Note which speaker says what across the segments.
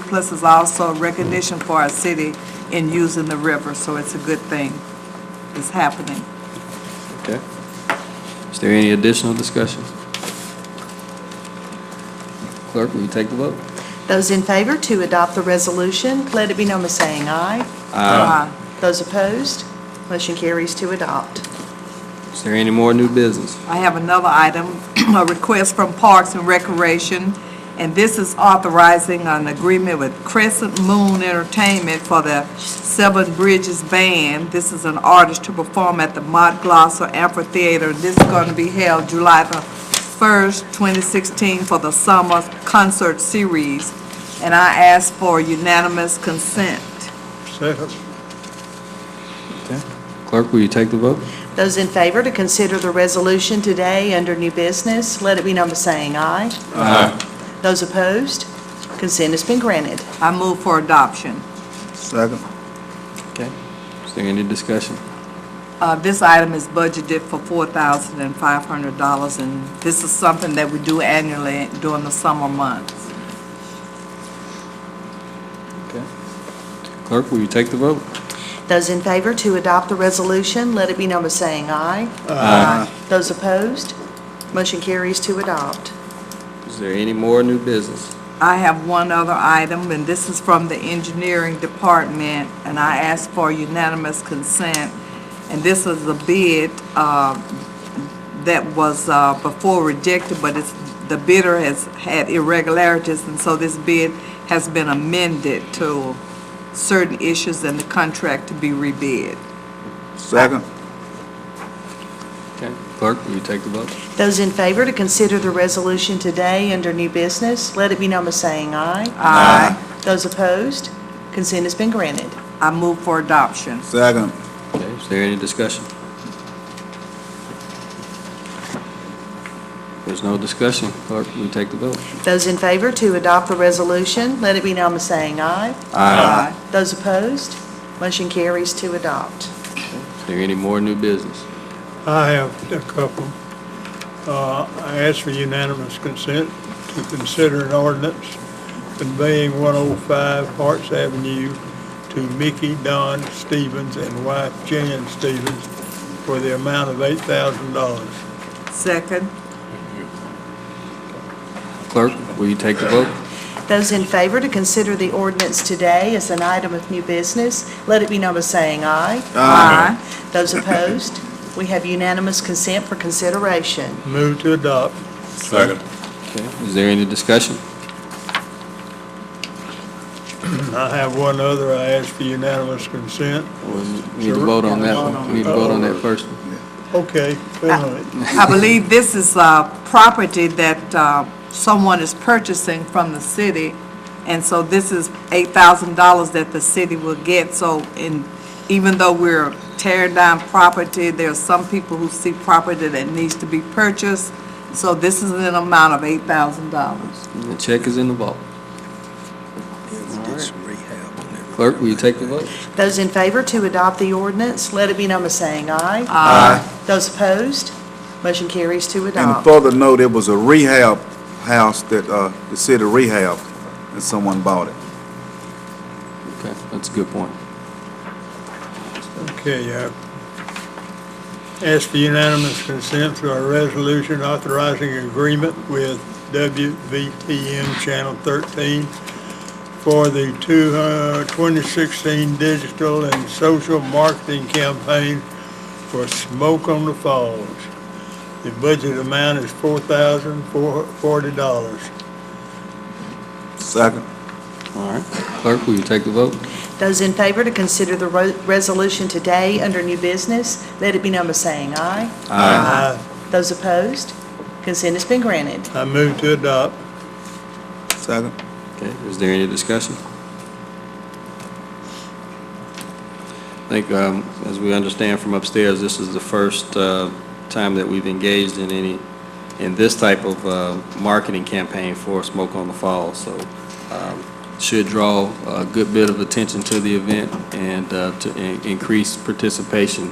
Speaker 1: Plus is also recognition for our city in using the river, so it's a good thing. It's happening.
Speaker 2: Okay. Is there any additional discussion? Clerk, will you take the vote?
Speaker 3: Those in favor to adopt the resolution, let it be known by saying aye.
Speaker 1: Aye.
Speaker 3: Those opposed, motion carries to adopt.
Speaker 2: Is there any more new business?
Speaker 1: I have another item, a request from Parks and Recreation, and this is authorizing an agreement with Crescent Moon Entertainment for the Seven Bridges Band. This is an artist to perform at the Mont Glosser Amphitheater. This is going to be held July the 1st, 2016, for the summer concert series, and I ask for unanimous consent.
Speaker 4: Second.
Speaker 2: Clerk, will you take the vote?
Speaker 3: Those in favor to consider the resolution today under new business, let it be known by saying aye. Aye. Those opposed, consent has been granted.
Speaker 1: I move for adoption.
Speaker 4: Second.
Speaker 2: Is there any discussion?
Speaker 1: Uh, This item is budgeted for $4,500, and this is something that we do annually during the summer months.
Speaker 2: Clerk, will you take the vote?
Speaker 3: Those in favor to adopt the resolution, let it be known by saying aye.
Speaker 1: Aye.
Speaker 3: Those opposed, motion carries to adopt.
Speaker 2: Is there any more new business?
Speaker 1: I have one other item, and this is from the engineering department, and I ask for unanimous consent. And this is a bid uh, that was uh, before rejected, but it's, the bidder has had irregularities, and so this bid has been amended to certain issues in the contract to be rebid.
Speaker 4: Second.
Speaker 2: Okay. Clerk, will you take the vote?
Speaker 3: Those in favor to consider the resolution today under new business, let it be known by saying aye.
Speaker 1: Aye.
Speaker 3: Those opposed, consent has been granted.
Speaker 1: I move for adoption.
Speaker 4: Second.
Speaker 2: Okay, is there any discussion? There's no discussion. Clerk, will you take the vote?
Speaker 3: Those in favor to adopt the resolution, let it be known by saying aye.
Speaker 1: Aye.
Speaker 3: Those opposed, motion carries to adopt.
Speaker 2: Is there any more new business?
Speaker 5: I have a couple. Uh, I ask for unanimous consent to consider an ordinance conveying 105 Harts Avenue to Mickey Don Stevens and wife Jan Stevens for the amount of $8,000.
Speaker 1: Second.
Speaker 2: Clerk, will you take the vote?
Speaker 3: Those in favor to consider the ordinance today as an item of new business, let it be known by saying aye.
Speaker 1: Aye.
Speaker 3: Those opposed, we have unanimous consent for consideration.
Speaker 5: Move to adopt.
Speaker 4: Second.
Speaker 2: Okay, is there any discussion?
Speaker 5: I have one other. I ask for unanimous consent.
Speaker 2: Or We need to vote on that one. We need to vote on that first one.
Speaker 5: Okay, wait a minute.
Speaker 1: I believe this is uh property that uh, someone is purchasing from the city, and so this is $8,000 that the city will get. So in, even though we're tearing down property, there are some people who see property that needs to be purchased, so this is an amount of $8,000.
Speaker 2: The check is in the vault. Clerk, will you take the vote?
Speaker 3: Those in favor to adopt the ordinance, let it be known by saying aye.
Speaker 4: Aye.
Speaker 3: Those opposed, motion carries to
Speaker 4: And
Speaker 3: adopt.
Speaker 4: further note, it was a rehab house that, uh, the city rehabbed, and someone bought it.
Speaker 2: Okay, that's a good point.
Speaker 5: Okay, uh, ask for unanimous consent to our resolution authorizing agreement with WVTM Channel 13 for the two, uh, 2016 digital and social marketing campaign for Smoke on the Falls. The budget amount is $4,040.
Speaker 4: Second.
Speaker 2: All right. Clerk, will you take the vote?
Speaker 3: Those in favor to consider the ro- resolution today under new business, let it be known by saying aye.
Speaker 5: Aye.
Speaker 3: Those opposed, consent has been granted.
Speaker 5: I move to adopt.
Speaker 4: Second.
Speaker 2: Okay, is there any discussion? I think, um, as we understand from upstairs, this is the first uh, time that we've engaged in any, in this type of uh, marketing campaign for Smoke on the Falls, so um, should draw a good bit of attention to the event and uh, to in- increase participation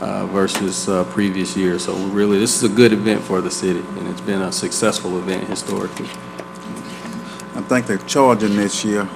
Speaker 2: uh, versus uh, previous years. So we really, this is a good event for the city, and it's been a successful event historically.
Speaker 4: I think they're charging this year